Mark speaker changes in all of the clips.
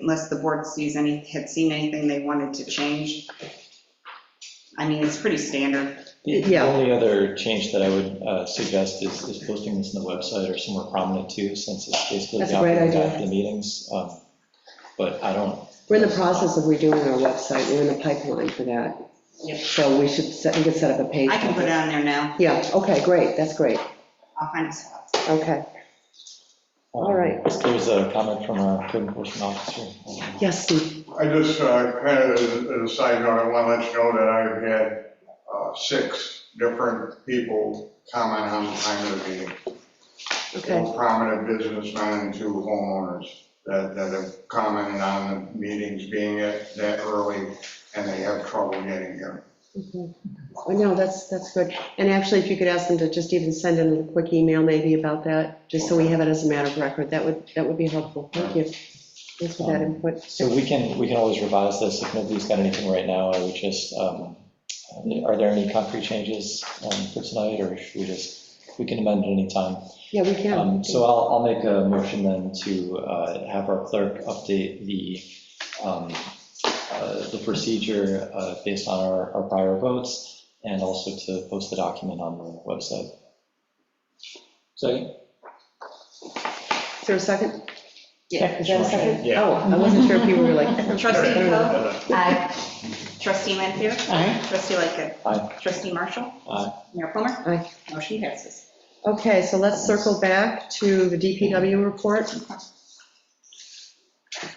Speaker 1: unless the board sees any, had seen anything they wanted to change. I mean, it's pretty standard.
Speaker 2: The the
Speaker 3: Yeah.
Speaker 2: only other change that I would uh, suggest is is posting this on the website or somewhere prominent too, since it's basically
Speaker 3: That's a
Speaker 2: got
Speaker 3: great
Speaker 2: the
Speaker 3: idea.
Speaker 2: got the meetings. um, But I don't, um,
Speaker 3: We're in the process of redoing our website, we're in the pipeline for that.
Speaker 1: Yep.
Speaker 3: So we should, set we could set up a page.
Speaker 1: I can put it on there now.
Speaker 3: Yeah, okay, great, that's great,
Speaker 1: I'll find a spot.
Speaker 3: okay. All right.
Speaker 2: um, There's a comment from our code enforcement officer.
Speaker 3: Yes, Steve,
Speaker 4: I just, uh, kind of as a side note, I want to let you know that I've had uh, six different people comment on the time of the meeting.
Speaker 3: okay,
Speaker 4: Both Prominent businessmen and two homeowners that, that have commented on the meetings being at that early and they have trouble getting here.
Speaker 3: mhm. Well, no, that's, that's good. And actually, if you could ask them to just even send in a quick email maybe about that, just so we have it as a matter of record, that would, that would be helpful, thank you. Thanks for that input.
Speaker 2: Um, So we can, we can always revise this. If nobody's got anything right now, I would just, um, are there any concrete changes um, for tonight, or should we just, we can amend at any time?
Speaker 3: Yeah, we can.
Speaker 2: Um, So I'll, I'll make a motion then to uh, have our clerk update the, um, uh, the procedure uh, based on our, our prior votes, and also to post the document on the website. Second?
Speaker 3: Is there a second?
Speaker 1: Yeah.
Speaker 3: Is that a second?
Speaker 2: Yeah.
Speaker 3: Oh, I wasn't sure if you were like.
Speaker 1: Trustee Coe? Aye. Trustee Lanfair?
Speaker 3: Aye.
Speaker 1: Trustee Lightgev?
Speaker 2: Aye.
Speaker 1: Trustee Marshall?
Speaker 2: Aye.
Speaker 1: Mayor Plummer?
Speaker 3: Aye.
Speaker 1: Motion passes.
Speaker 3: Okay, so let's circle back to the DPW report.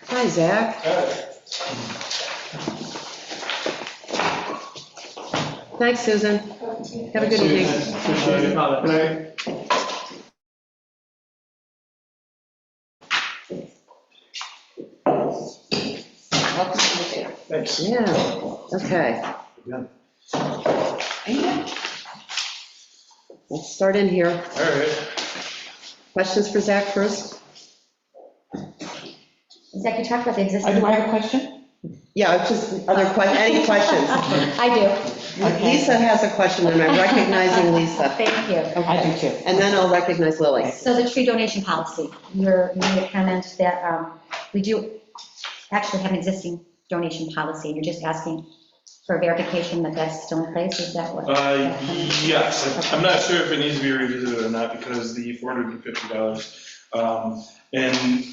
Speaker 3: Hi, Zach. Thanks, Susan. Have a good evening.
Speaker 4: Appreciate it.
Speaker 1: Welcome to the table.
Speaker 3: Yeah, okay, let's start in here.
Speaker 4: All right.
Speaker 3: Questions for Zach first?
Speaker 5: Zach, you talked about the
Speaker 6: I
Speaker 5: existing.
Speaker 6: do I have a question?
Speaker 3: Yeah, it's just other que, any questions?
Speaker 5: I do. Okay.
Speaker 3: Lisa has a question, and I'm recognizing Lisa.
Speaker 5: Thank you.
Speaker 6: I
Speaker 3: Okay,
Speaker 6: do too.
Speaker 3: and then I'll recognize Lily.
Speaker 5: So the tree donation policy, you're, you made a comment that um, we do actually have an existing donation policy. You're just asking for verification that that's still in place, is that what?
Speaker 7: Uh, Yes, I'm not sure if it needs to be revisited or not, because the $450, um, and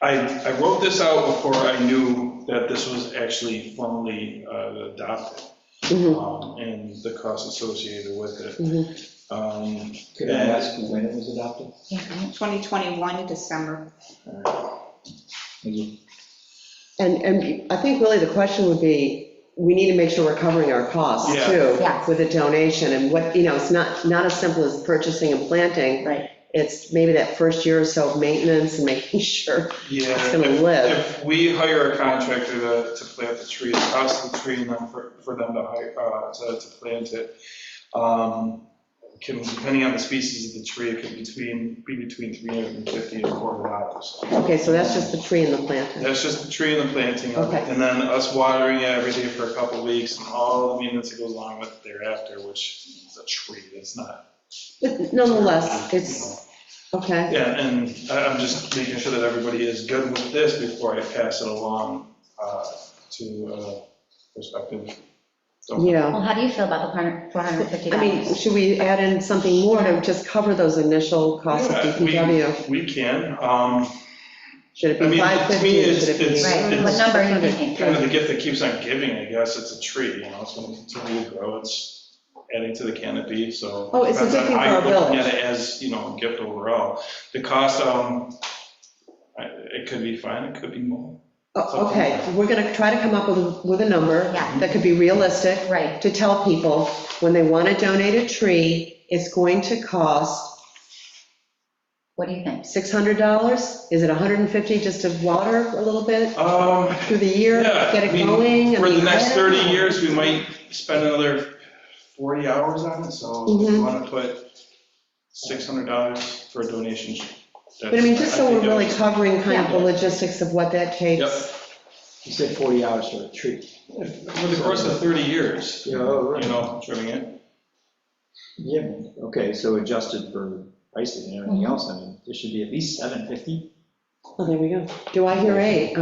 Speaker 7: I, I wrote this out before I knew that this was actually formally uh, adopted,
Speaker 3: Mhm,
Speaker 7: um, and the cost associated with
Speaker 3: mhm.
Speaker 7: it. Um,
Speaker 2: Could I ask when it was adopted?
Speaker 5: Yeah, right.
Speaker 1: 2021, December.
Speaker 3: And, and I think really the question would be, we need to make sure we're covering our costs
Speaker 7: Yeah.
Speaker 3: too.
Speaker 5: Yes.
Speaker 3: With a donation and what, you know, it's not, not as simple as purchasing and planting.
Speaker 5: Right.
Speaker 3: It's maybe that first year or so of maintenance and making sure
Speaker 7: Yeah.
Speaker 3: it's gonna live.
Speaker 7: If we hire a contractor to, to plant the tree, the cost of the tree and then for, for them to hire, uh, to, to plant it, um, can, depending on the species of the tree, it could between, be between three hundred and fifty and four hundred dollars.
Speaker 3: Okay, so that's just the tree and the planting.
Speaker 7: That's just the tree and the planting of it,
Speaker 3: Okay.
Speaker 7: and then us watering it every day for a couple of weeks and all the maintenance that goes along with it thereafter, which is a tree, that's not.
Speaker 3: But nonetheless, it's, okay,
Speaker 7: Yeah, and I, I'm just making sure that everybody is good with this before I pass it along, uh, to, uh, prospective. donors.
Speaker 3: yeah.
Speaker 5: Well, how do you feel about the $450?
Speaker 3: I mean, should we add in something more to just cover those initial costs of
Speaker 7: Yeah, we-
Speaker 3: DPW?
Speaker 7: We can, um,
Speaker 3: Should it
Speaker 7: I
Speaker 3: be
Speaker 7: mean, to
Speaker 3: 550?
Speaker 7: me, it's-
Speaker 3: Should it be-
Speaker 7: it's-
Speaker 5: Right, what number are you
Speaker 7: kind
Speaker 5: thinking?
Speaker 7: of the gift that keeps on giving, I guess, it's a tree, you know, it's gonna continue to grow, it's adding to the canopy, so.
Speaker 3: Oh, it's a good thing for our
Speaker 7: I'm looking
Speaker 3: village.
Speaker 7: at it as, you know, a gift overall. The cost, um, I- it could be fine, it could be more.
Speaker 3: Oh, Okay, we're gonna try to come up with, a- with a number
Speaker 5: Yeah.
Speaker 3: that could be realistic.
Speaker 5: Right,
Speaker 3: to tell people, when they want to donate a tree, it's going to cost
Speaker 5: what do you think?
Speaker 3: $600? Is it 150 just to water a little bit
Speaker 7: Um,
Speaker 3: through the year,
Speaker 7: Yeah,
Speaker 3: get
Speaker 7: I
Speaker 3: it
Speaker 7: mean,
Speaker 3: going? I
Speaker 7: for the
Speaker 3: mean,
Speaker 7: next
Speaker 3: I don't
Speaker 7: 30
Speaker 3: know.
Speaker 7: years, we might spend another 40 hours on it, so if you
Speaker 3: Mhm.
Speaker 7: wanna put $600 for a donation.
Speaker 3: But I mean, just so we're really
Speaker 7: that's-
Speaker 3: covering kind of the
Speaker 7: Yeah.
Speaker 3: logistics of what that
Speaker 7: Yep.
Speaker 3: takes.
Speaker 8: You said 40 hours for a tree.
Speaker 7: Over the course of 30 years,
Speaker 8: Yeah, oh,
Speaker 7: you know, trimming it.
Speaker 8: Yeah, okay, so adjusted for pricing and everything else, I mean, this should be at least 750.
Speaker 3: Oh, Well, there we go. Do I hear eight?